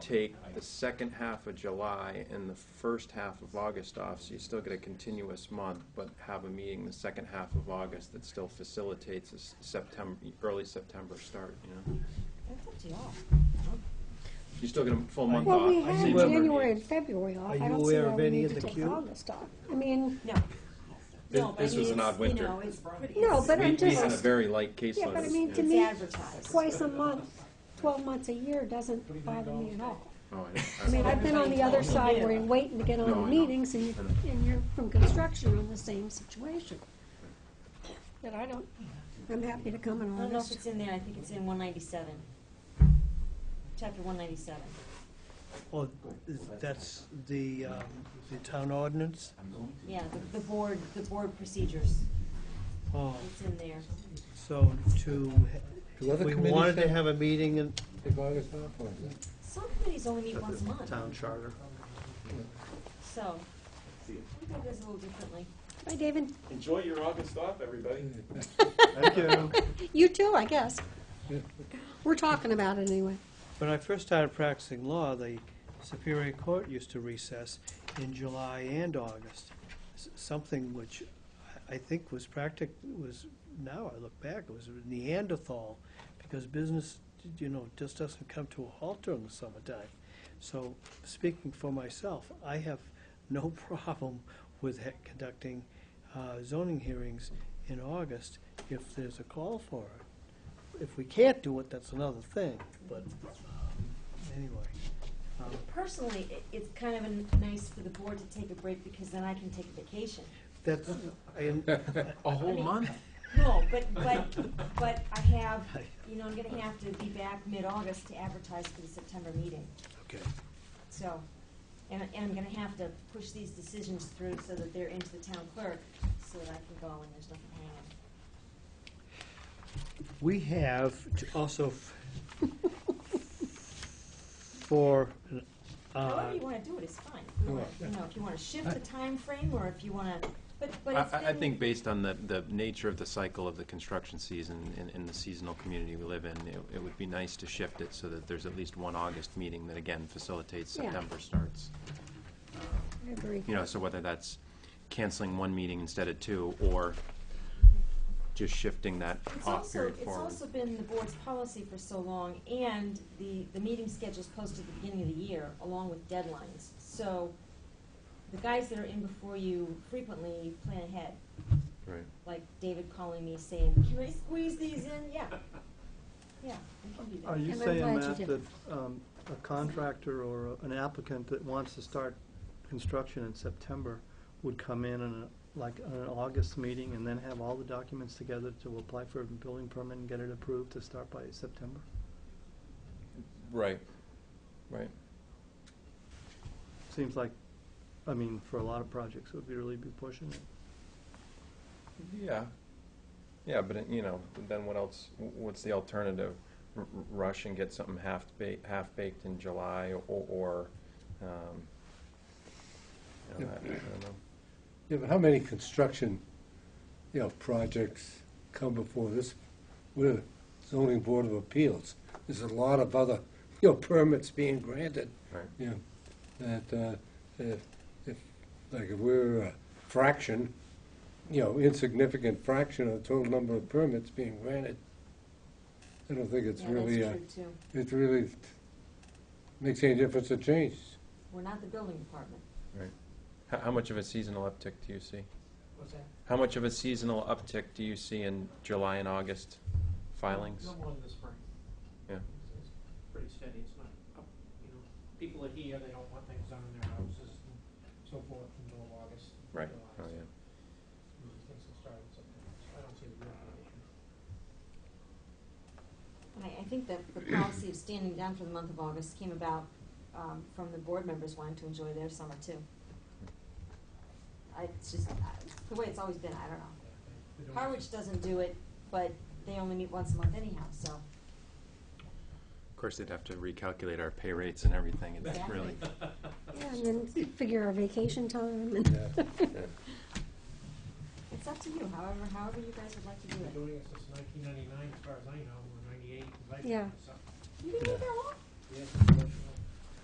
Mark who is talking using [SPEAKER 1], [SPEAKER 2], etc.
[SPEAKER 1] take the second half of July and the first half of August off, so you still get a continuous month, but have a meeting the second half of August that still facilitates a s- September, early September start, you know?
[SPEAKER 2] That's up to y'all.
[SPEAKER 1] You're still get a full month off.
[SPEAKER 3] Well, we
[SPEAKER 1] I've
[SPEAKER 3] had
[SPEAKER 1] seen
[SPEAKER 4] Well-
[SPEAKER 1] other
[SPEAKER 3] January and
[SPEAKER 1] meetings.
[SPEAKER 3] February off.
[SPEAKER 4] Are
[SPEAKER 3] I
[SPEAKER 4] you
[SPEAKER 3] don't see
[SPEAKER 4] aware
[SPEAKER 3] why
[SPEAKER 4] of
[SPEAKER 3] we
[SPEAKER 4] any
[SPEAKER 3] need
[SPEAKER 4] of
[SPEAKER 3] to
[SPEAKER 4] the
[SPEAKER 3] take
[SPEAKER 4] queue?
[SPEAKER 3] August off. I mean,
[SPEAKER 2] No.
[SPEAKER 1] This-
[SPEAKER 2] No, but
[SPEAKER 1] this
[SPEAKER 2] I mean,
[SPEAKER 1] was an
[SPEAKER 2] it's-
[SPEAKER 1] odd winter.
[SPEAKER 2] You know, it's pretty.
[SPEAKER 3] No,
[SPEAKER 2] it's-
[SPEAKER 3] but I'm
[SPEAKER 1] We, we had a
[SPEAKER 3] just-
[SPEAKER 1] very light caseload.
[SPEAKER 3] yeah, but I mean, to
[SPEAKER 2] It's
[SPEAKER 3] me,
[SPEAKER 2] advertised.
[SPEAKER 3] twice a month, twelve months a year doesn't bother me at all.
[SPEAKER 1] Oh,
[SPEAKER 3] I mean, I've been on the other side where
[SPEAKER 2] Yeah.
[SPEAKER 3] you're waiting to get on
[SPEAKER 1] No,
[SPEAKER 3] the
[SPEAKER 1] I know.
[SPEAKER 3] meetings and,
[SPEAKER 1] I know.
[SPEAKER 3] and you're from construction on the same situation. But I don't, I'm happy to come in
[SPEAKER 2] I don't know if
[SPEAKER 3] August.
[SPEAKER 2] it's in there, I think it's in one ninety-seven. Chapter one ninety-seven.
[SPEAKER 4] Well, that's the, um, the town ordinance.
[SPEAKER 2] Yeah, the, the board, the board procedures,
[SPEAKER 4] Oh,
[SPEAKER 2] it's in there.
[SPEAKER 4] so to,
[SPEAKER 5] Do other
[SPEAKER 4] we
[SPEAKER 5] committees
[SPEAKER 4] wanted to
[SPEAKER 5] have-
[SPEAKER 4] have a meeting in
[SPEAKER 5] Take August off, or is it?
[SPEAKER 2] Some committees only meet once a month,
[SPEAKER 4] town charter.
[SPEAKER 2] so we do this a little differently.
[SPEAKER 3] Bye, David.
[SPEAKER 6] Enjoy your August off, everybody.
[SPEAKER 4] Thank you.
[SPEAKER 3] You too, I guess. We're talking about it anyway.
[SPEAKER 4] When I first started practicing law, the Superior Court used to recess in July and August. S- Something which I I think was practic, was, now I look back, it was Neanderthal, because business, you know, just doesn't come to a halt during the summertime. So, speaking for myself, I have no problem with he- conducting uh, zoning hearings in August if there's a call for it. If we can't do it, that's another thing, but Anyway, um,
[SPEAKER 2] Personally, it, it's kind of a nice for the board to take a break because then I can take a vacation.
[SPEAKER 4] that's, I,
[SPEAKER 1] A whole
[SPEAKER 2] mean-
[SPEAKER 1] month?
[SPEAKER 2] No, but, but, but I have, you know, I'm gonna have to be back mid-August to advertise for the September meeting.
[SPEAKER 4] okay.
[SPEAKER 2] So, and, and I'm gonna have to push these decisions through so that they're into the town clerk, so that I can go and there's nothing hanging.
[SPEAKER 4] We have to also f- for, uh,
[SPEAKER 2] However you wanna do it, it's fine. If you wanna, you know, if you wanna shift the time frame or if you wanna, but, but
[SPEAKER 1] I,
[SPEAKER 2] it's
[SPEAKER 1] I- I
[SPEAKER 2] been-
[SPEAKER 1] think based on the, the nature of the cycle of the construction season and, and the seasonal community we live in, it, it would be nice to shift it so that there's at least one August meeting that again facilitates
[SPEAKER 3] Yeah.
[SPEAKER 1] September starts.
[SPEAKER 3] I agree.
[SPEAKER 1] You know, so whether that's canceling one meeting instead of two, or just shifting that
[SPEAKER 2] It's
[SPEAKER 1] off
[SPEAKER 2] also,
[SPEAKER 1] period
[SPEAKER 2] it's
[SPEAKER 1] forward.
[SPEAKER 2] also been the board's policy for so long, and the, the meeting schedule's posted at the beginning of the year, along with deadlines. So, the guys that are in before you frequently plan ahead,
[SPEAKER 1] Right.
[SPEAKER 2] like David calling me saying, can I squeeze these in? Yeah. Yeah, we can do
[SPEAKER 7] Are
[SPEAKER 2] that.
[SPEAKER 7] you
[SPEAKER 3] And I'm
[SPEAKER 7] saying,
[SPEAKER 3] glad
[SPEAKER 7] Matt,
[SPEAKER 3] you
[SPEAKER 7] that um, a contractor or an applicant that wants to start construction in September would come in on a, like, on an August meeting and then have all the documents together to apply for a building permit and get it approved to start by September?
[SPEAKER 1] Right, right.
[SPEAKER 7] Seems like, I mean, for a lot of projects, it would be really be pushing it.
[SPEAKER 1] Yeah. Yeah, but, it- you know, then what else, wh- what's the alternative? R- r- Rush and get something half baked, half baked in July or, or, um, you know, I I don't know.
[SPEAKER 5] Yeah, but how many construction, you know, projects come before this, with the zoning board of appeals? There's a lot of other, you know, permits being granted.
[SPEAKER 1] Right.
[SPEAKER 5] You know, that, uh, if, if, like, if we're a fraction, you know, insignificant fraction of the total number of permits being granted, I don't think it's
[SPEAKER 2] Yeah,
[SPEAKER 5] really, uh,
[SPEAKER 2] that's true too.
[SPEAKER 5] it really makes any difference or change.
[SPEAKER 2] We're not the building department.
[SPEAKER 1] How, how much of a seasonal uptick do you see? How much of a seasonal uptick do you see in July and August filings?
[SPEAKER 8] No more than the spring.
[SPEAKER 1] Yeah.
[SPEAKER 8] It's- it's Pretty steady, it's not, up, you know, people are here, they don't want things done in their houses and so forth until August.
[SPEAKER 1] Right, oh,
[SPEAKER 8] July, so
[SPEAKER 1] yeah.
[SPEAKER 8] Things will start in September, so I don't see the real issue.
[SPEAKER 2] I, I think that the policy of standing down for the month of August came about um, from the board members wanting to enjoy their summer too. I, it's just, I- the way it's always been, I don't know.
[SPEAKER 8] They don't-
[SPEAKER 2] Harwich doesn't do it, but they only meet once a month anyhow, so.
[SPEAKER 1] Of course, they'd have to recalculate our pay rates and everything, it's
[SPEAKER 2] Exactly.
[SPEAKER 1] really,
[SPEAKER 3] Yeah, and then figure our vacation time and.
[SPEAKER 5] Yeah.
[SPEAKER 2] It's up to you, however, however you guys would like to
[SPEAKER 8] They've
[SPEAKER 2] do
[SPEAKER 8] been
[SPEAKER 2] it.
[SPEAKER 8] doing it since nineteen ninety-nine, as far as I know, or ninety-eight, as I
[SPEAKER 3] Yeah.
[SPEAKER 8] so.
[SPEAKER 2] You can do that long?
[SPEAKER 8] Yeah, it's a motion